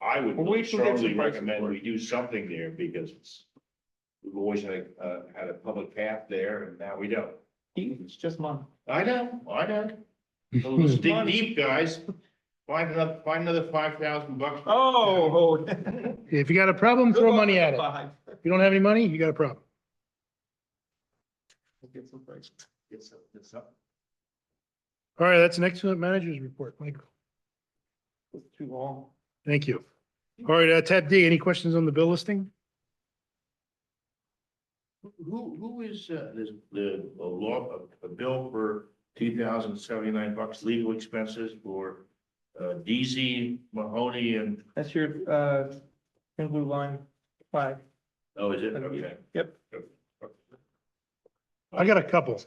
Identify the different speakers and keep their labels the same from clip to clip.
Speaker 1: I would
Speaker 2: Well, we can get some
Speaker 1: strongly
Speaker 2: prices
Speaker 1: recommend
Speaker 2: for it.
Speaker 1: we do something there because it's. We've always had, a- uh, had a public path there and now we don't.
Speaker 2: It's just money.
Speaker 1: I know, I know. Let's dig deep, guys. Find another, find another five thousand bucks.
Speaker 2: Oh.
Speaker 3: If you got a problem, throw money at it.
Speaker 2: Five.
Speaker 3: If you don't have any money, you got a problem.
Speaker 2: We'll Get some prices.
Speaker 1: It's, it's up.
Speaker 3: All right, that's an excellent manager's report, Michael.
Speaker 2: It's Too long.
Speaker 3: Thank you. All right, uh, tab D, any questions on the bill listing?
Speaker 1: Who, who is, uh, this, the, a law, a, a bill for two thousand seventy-nine bucks legal expenses for. Uh, DZ Mahoney and,
Speaker 2: That's your, uh, thin blue line five.
Speaker 1: oh, is it, okay.
Speaker 2: Yep.
Speaker 3: I got a couple.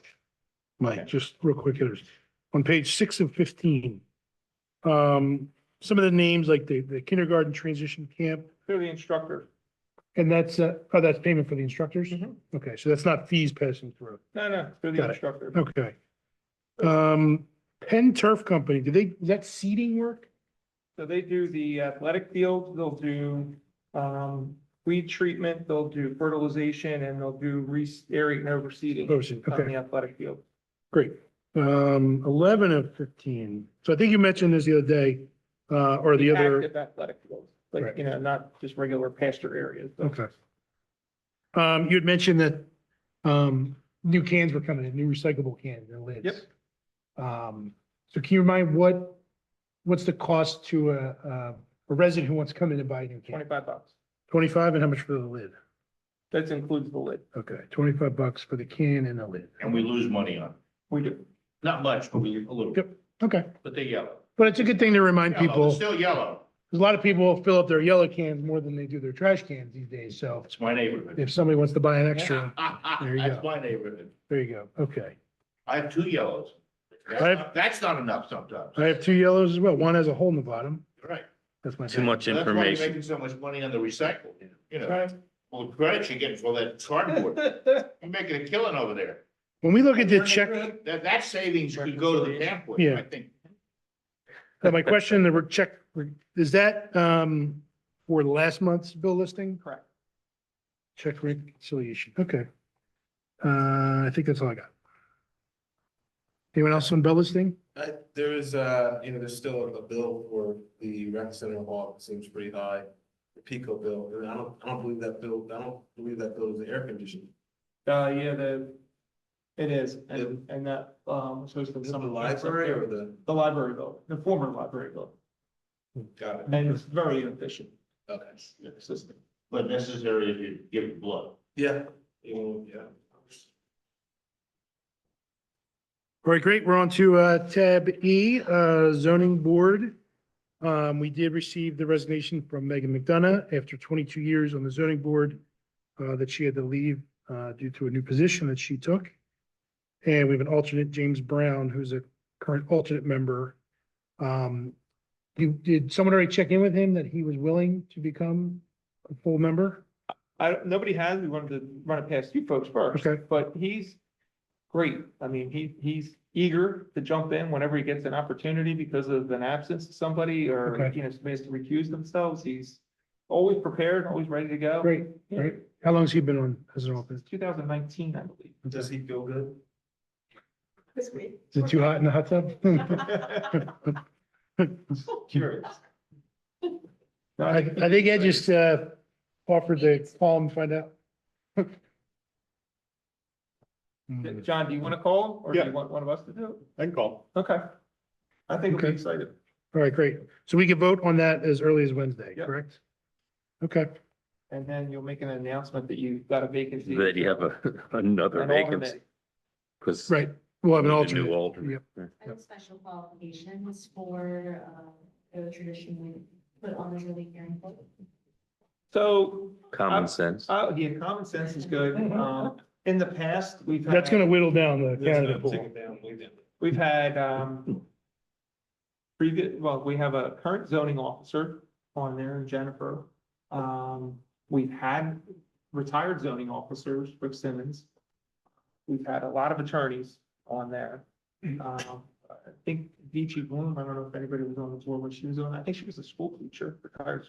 Speaker 3: Mike, just real quick hitters. On page six of fifteen. Um, some of the names like the, the kindergarten transition camp,
Speaker 2: Through the instructor.
Speaker 3: and that's, uh, oh, that's payment for the instructors?
Speaker 2: Mhm.
Speaker 3: Okay, so that's not fees passing through.
Speaker 2: No, no, through the
Speaker 3: Got it.
Speaker 2: instructor.
Speaker 3: Okay. Um, Penn Turf Company, do they, is that seeding work?
Speaker 2: So they do the athletic field, they'll do, um, weed treatment, they'll do fertilization, and they'll do re, aerating and overseeding
Speaker 3: Oh, seed,
Speaker 2: on
Speaker 3: Okay,
Speaker 2: the athletic field.
Speaker 3: great. Um, eleven of fifteen. So I think you mentioned this the other day, uh, or the other.
Speaker 2: Active athletic fields, like,
Speaker 3: Right.
Speaker 2: you know, not just regular pasture areas. but-
Speaker 3: Okay. Um, you had mentioned that, um, new cans were coming in, new recyclable cans and lids.
Speaker 2: Yep.
Speaker 3: Um, so can you remind what, what's the cost to a, a a resident who wants to come in and buy a new can?
Speaker 2: Twenty-five bucks.
Speaker 3: Twenty-five and how much for the lid?
Speaker 2: That includes the lid.
Speaker 3: Okay, twenty-five bucks for the can and the lid.
Speaker 1: And we lose money on, it.
Speaker 2: We do.
Speaker 1: not much, but we, a little,
Speaker 3: Yep. Okay,
Speaker 1: but they yellow.
Speaker 3: but it's a good thing to remind
Speaker 1: Yellow,
Speaker 3: people,
Speaker 1: it's Still yellow.
Speaker 3: because a lot of people fill up their yellow cans more than they do their trash cans these days. So
Speaker 1: It's my neighborhood.
Speaker 3: if somebody wants to buy an extra, There you
Speaker 1: That's
Speaker 3: go.
Speaker 1: my neighborhood.
Speaker 3: there you go. Okay.
Speaker 1: I have two yellows. That's
Speaker 3: I have-
Speaker 1: not- That's not enough sometimes.
Speaker 3: I have two yellows as well. One has a hole in the bottom.
Speaker 1: Right.
Speaker 3: That's my.
Speaker 4: Too much
Speaker 1: That's why you're
Speaker 4: information.
Speaker 1: making so much money on the recycle, you know.
Speaker 2: Right.
Speaker 1: Well, credit you're getting for that cardboard. You're making a killing over there.
Speaker 3: When we look at the check,
Speaker 1: That, that savings could go to the camp with,
Speaker 3: Yeah.
Speaker 1: I think.
Speaker 3: uh, my question, the re- check, is that um for last month's bill listing?
Speaker 2: Correct.
Speaker 3: Check reconciliation, okay. Uh, I think that's all I got. Anyone else on bill listing?
Speaker 5: I, there is, uh, you know, there's still a bill for the rec center hall, it seems pretty high, the Pico bill, and I don't, I don't believe that bill, I don't believe that bill is air conditioned.
Speaker 2: Uh, yeah, the, it is, and, and that, um, was hosted
Speaker 5: Is it the
Speaker 2: some. lights up
Speaker 5: library
Speaker 2: there.
Speaker 5: or the,
Speaker 2: The library bill, the former library bill,
Speaker 5: got it,
Speaker 2: and it's very inefficient,
Speaker 5: okay,
Speaker 2: the system.
Speaker 1: But necessary if you give blood.
Speaker 5: yeah, you know, yeah.
Speaker 3: All right, great, we're on to uh tab E, uh zoning board. Um, we did receive the resignation from Megan McDonough after twenty-two years on the zoning board. Uh, that she had to leave uh due to a new position that she took. And we have an alternate, James Brown, who's a current alternate member. Um, you, did someone already check in with him that he was willing to become a full member?
Speaker 2: I, don't- nobody has, we wanted to run it past you folks first,
Speaker 3: Okay,
Speaker 2: but he's great, I mean, he, he's eager to jump in whenever he gets an opportunity because of an absence of somebody, or,
Speaker 3: Okay.
Speaker 2: you know, somebody has to recuse themselves, he's always prepared, always ready to go.
Speaker 3: great, great. How long's he been on as an alternate?
Speaker 2: Since two thousand nineteen, I believe.
Speaker 5: Does he feel good?
Speaker 6: This week.
Speaker 3: Is it too hot in the hot tub?
Speaker 2: Curious. No,
Speaker 3: I, I think Ed just, uh, offered to call him and find out. Hmm.
Speaker 2: John, do you want to call him, or do
Speaker 1: Yeah.
Speaker 2: you want one of us to do it?
Speaker 1: I can call.
Speaker 2: Okay. I think we'll
Speaker 3: Okay.
Speaker 2: be excited.
Speaker 3: All right, great. So we can vote on that as early as Wednesday,
Speaker 2: Yep.
Speaker 3: correct? Okay,
Speaker 2: And then you'll make an announcement that you've got a vacancy.
Speaker 4: That you have a, another
Speaker 2: an
Speaker 4: vacancy,
Speaker 2: alternate.
Speaker 4: because.
Speaker 3: right. We'll have an
Speaker 4: New
Speaker 3: alternate.
Speaker 4: alternate.
Speaker 6: I have special qualifications for, uh, the tradition we put on the really hearing board.
Speaker 2: So,
Speaker 4: Common sense.
Speaker 2: uh, yeah, common sense is good.
Speaker 6: Mm-hmm.
Speaker 2: Um, in the past, we've.
Speaker 3: That's
Speaker 2: had-
Speaker 3: gonna whittle down the
Speaker 5: There's no
Speaker 3: candidate pool.
Speaker 5: ticket down, we did.
Speaker 2: We've had, um, previous, well, we have a current zoning officer on there, Jennifer. Um, we've had retired zoning officers, Rick Simmons. We've had a lot of attorneys on there. Um, I think Vici Bloom, I don't know if anybody was on the board when she was on, I think she was a school teacher, retired